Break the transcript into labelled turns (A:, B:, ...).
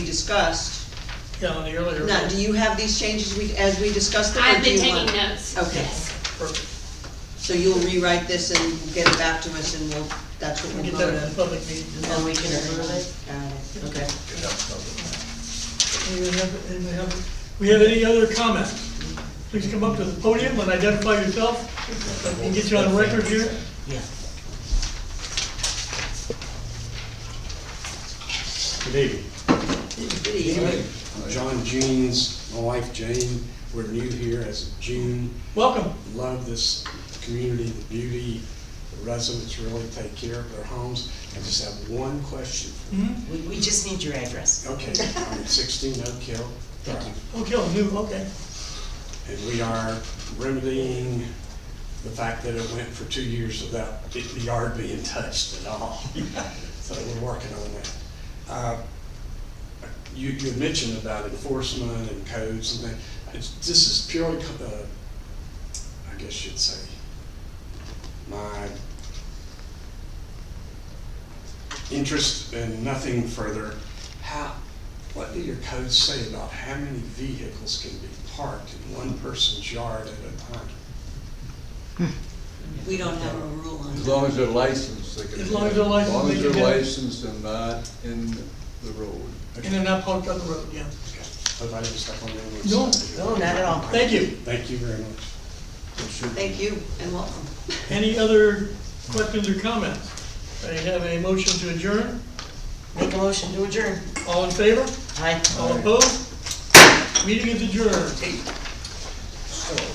A: discussed.
B: Yeah, on the earlier.
A: Now, do you have these changes we, as we discussed them? or
C: I've
A: do
C: been
A: you want-
C: taking notes.
A: Okay.
C: Yes.
B: Perfect.
A: So you'll rewrite this and get it back to us and we'll, that's what
B: We
A: we'll
B: get that
A: vote on.
B: in the public meeting.
A: And we can approve it? Got it, okay.
B: Anyone have- anyone have- We have any other comment? Please come up to the podium and identify yourself. We can get you on record here.
A: Yeah.
D: Good evening.
A: Good evening.
D: John Jeans, my wife Jane, we're new here as of June.
B: Welcome.
D: Love this community, the beauty, the residents really take care of their homes. I just have one question.
B: Mhm.
E: We, we just need your address.
A: Mm-hmm.
D: Okay, I'm at sixteen Oak Hill. Drive,
B: Okay, oh, new, okay.
D: And we are remedying the fact that it went for two years without the the yard being touched at all. So we're working on that. Uh, You, you had mentioned about enforcement and codes and that, It's- this is purely, co- uh, I guess you'd say, my interest and nothing further. How, what do your codes say about how many vehicles can be parked in one person's yard at a time?
A: We don't have a rule on
F: As
A: that.
F: long as they're licensed, they can.
B: As
F: do
B: long as
F: that.
B: they're licensed,
F: As long
B: they
F: as
B: can
F: they're
B: do it.
F: licensed and not in the road.
B: And they're not parked on the road, yeah.
D: Okay, Hope I didn't step on anyone's.
B: No,
E: No, not at all.
B: Thank you.
D: Thank you very much.
F: It should-
A: Thank you and welcome.
B: Any other questions or comments? I have a motion to adjourn.
E: Make a motion to adjourn.
B: All in favor?
E: Aye.
B: All opposed? Meeting is adjourned.